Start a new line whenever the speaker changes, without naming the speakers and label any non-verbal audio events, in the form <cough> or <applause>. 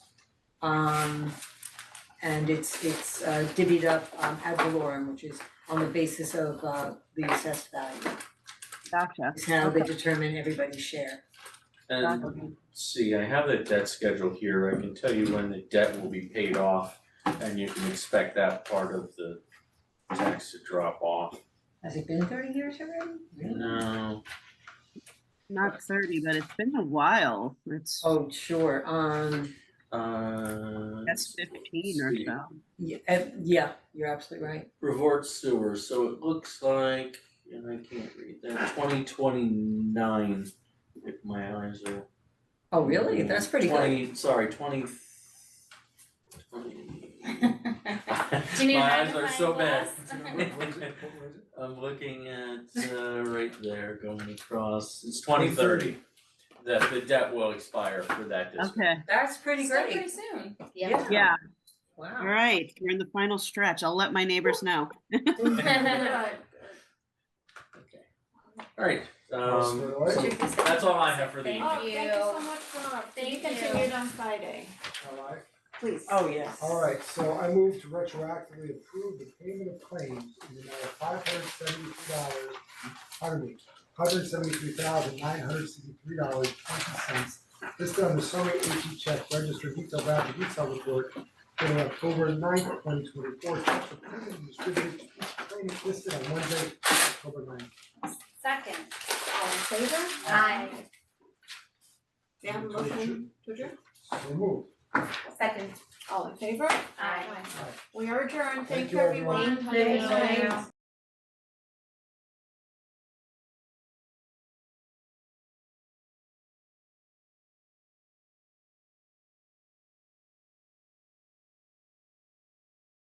Um, and it's, it's uh, divvied up um, ad valorem, which is on the basis of, uh, the assessed value.
Gotcha.
It's how they
Okay.
determine everybody's share.
And
Gotcha.
see, I have the debt schedule here, I can tell you when the debt will be paid off and you can expect that part of the tax to drop off.
Has it been thirty years already?
<laughs> No,
Not thirty, but it's been a while. It's,
Oh, sure, um,
uh.
that's fifteen or
see.
so.
yeah, eh, yeah, you're absolutely right.
Revort sewer, so it looks like, and I can't read that, twenty twenty nine, if my eyes are.
Oh, really? That's pretty good.
Twenty, sorry, twenty.
<laughs>
Twenty. <laughs>
Do you need a
My eyes are so
magnifying
bad.
glass?
What was it, what was it?
I'm looking at uh right there going across, it's twenty thirty. That the debt will expire for that district. <laughs>
Okay,
That's pretty
Still
great,
pretty soon.
<laughs>
yeah.
yeah, all
Wow.
right. We're in the final stretch. I'll let my neighbors know.
Alright, um
All right.
that's all I have for the
Thank
evening.
you.
Thank you so much, Rob. Can you
Thank you.
continue it on Friday,
All right.
please?
Oh, yes.
All right, so I move to retroactively approve the payment of claims in the amount of five hundred seventy-three dollars, pardon me, hundred seventy-three thousand nine hundred sixty-three dollars twenty cents. This done the summary AP check register detail voucher detail report dated October 9th, twenty twenty-four, checks approved and distributed to each claimant listed on Wednesday, October 9th.
Second.
All in favor?
Aye.
May I have a motion to adjourn?
So moved.
Second.
All in favor?
Aye.
We are adjourned,
Thank
thank
you,
you everyone.
everyone.
Thank you.
Have a good night.